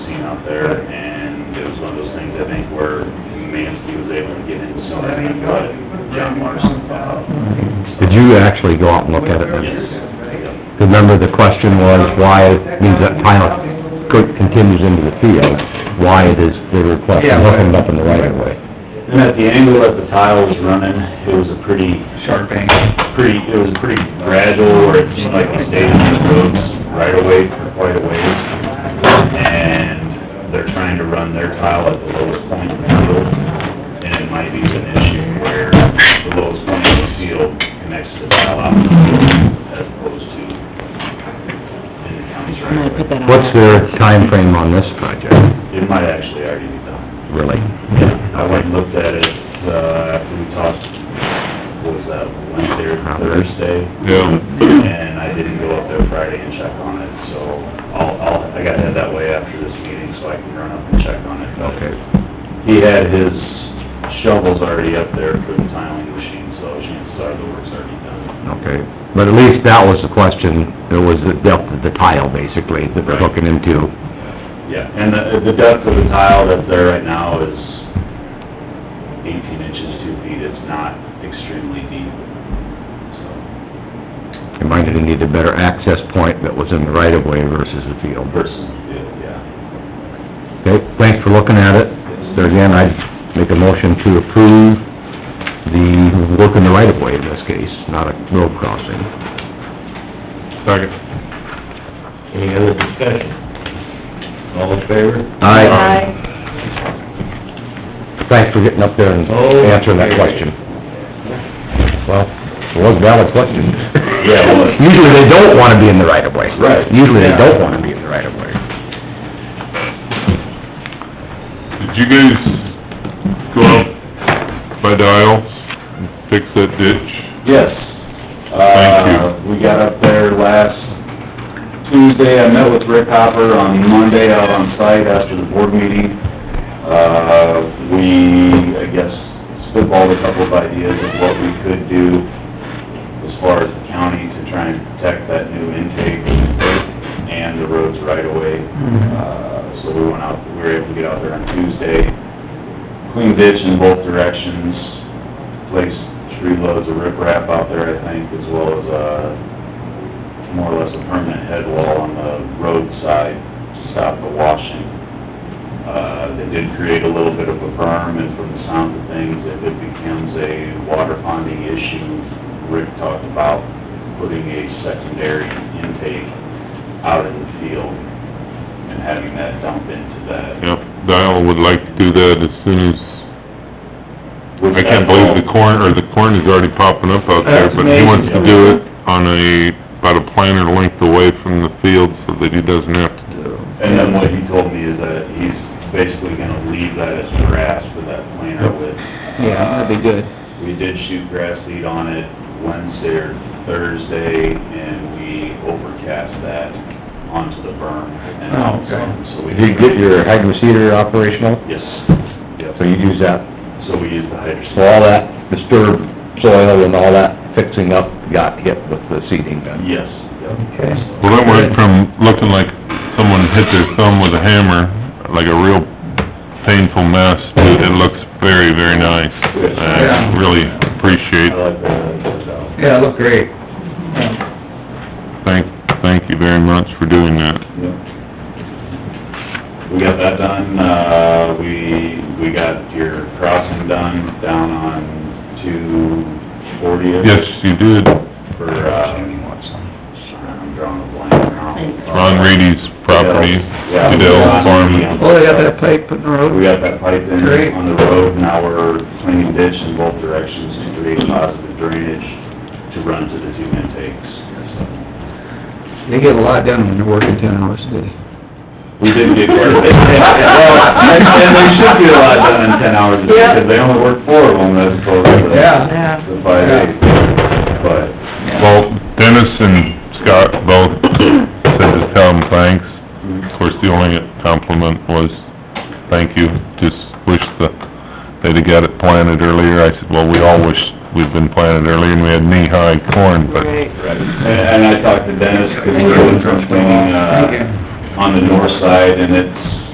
out there, and it was one of those things, I think, where Mansky was able to get in sooner than what John Larson thought. Did you actually go out and look at it? Yes. Remember, the question was why it means that tile could- continues into the field, why it is the request, and hooking it up in the right of way. And at the angle that the tile was running, it was a pretty... Sharp angle. Pretty, it was pretty gradual, where it seemed like it stayed on the roads right away for quite a ways. And they're trying to run their tile at the lowest point in the field, and it might be an issue where the lowest point in the field connects to the tile out in the field as opposed to in the county's I'm right gonna of put way. that on. What's their timeframe on this project, It might actually already be done. really? I went and looked at it, uh, after we talked, what was that, Wednesday or Thursday? And I didn't go up there Friday and check on it, so I'll, I'll, I gotta head that way after this meeting so I can run up and check on it. But Okay. He had his shovels already up there for the tiling machine, so chances are the work's already done. Okay, but at least that was the question, it was the depth of the tile, basically, that they're hooking into. Yeah, and the, the depth of the tile that's there right now is eighteen inches, two feet. It's not extremely deep, so. It might have needed a better access point that was in the right of way versus the field. versus the field, yeah. Okay, thanks for looking at it. So again, I'd make a motion to approve the work in the right of way in this case, not a road crossing. Second. Any other discussion? All in favor? Aye. Thanks for getting up there and Oh, answering that question. Well, it was a valid question. Yeah, it was. Usually they don't wanna be in the right of way. Right. Usually they Yeah. don't wanna be in the right of way. Did you guys go out by the aisles, and fix that ditch? Yes. Thank you. Uh, we got up there last Tuesday, I met with Rick Hopper on Monday out on site after the board meeting. Uh, we, I guess, spitballed a couple of ideas of what we could do as far as the county to try and protect that new intake and the roads right away. Uh, so we went out, we were able to get out there on Tuesday, clean ditch in both directions, place three loads of riprap out there, I think, as well as, uh, more or less a permanent head wall on the roadside to stop the washing. Uh, they did create a little bit of a berm, and from the sound of things, if it becomes a water ponding issue, Rick talked about putting a secondary intake out in the field and having that dump into that. Yep, the aisle would like to do that as soon as, With I that can't believe the wall- corn, or the corn is already popping up out there, but he wants to do it on a, about a planter length away from the field so that he doesn't have to. And then what he told me is that he's basically gonna leave that as grass for that planter with. Yeah, that'd be good. We did shoot grass seed on it Wednesday or Thursday, and we overcast that onto the berm. and Oh, okay. So we. Did you get your hydro seeder operational? Yes, yep. So you use that, So we used the hydro. so all that disturbed soil and all that fixing up got hit with the seeding then? Yes, yep. Okay. Well, that went from looking like someone hit their thumb with a hammer, like a real painful mess, to it looks very, very nice. I really appreciate I like that. Yeah, look great. Thank, thank you very much for doing that. Yep. We got that done, uh, we, we got your crossing done down on two fortieth. Yes, you did. For, uh, I'm drawing a blank now. Ron Reedy's property, Yeah. Fidel Farm. Well, Oh, they got that plate put in We the got road. that pipe in Great. on the road, now we're cleaning ditch in both directions to create positive drainage to run to the two intakes. They get a lot done when they're working ten hours a day. We didn't get quite a bit. Well, And and they should get a lot done in ten hours, a day, because they only work four of them as opposed to the- Yeah. the five days. But, Well, Dennis and Scott both said to tell him thanks. Of course, the only compliment was, thank you, just wish the, they'd have got it planted earlier. I said, well, we all wish we'd been planted earlier and we had knee-high corn, but right, and and I talked to Dennis, because we're doing some cleaning, uh, on the north side, and it's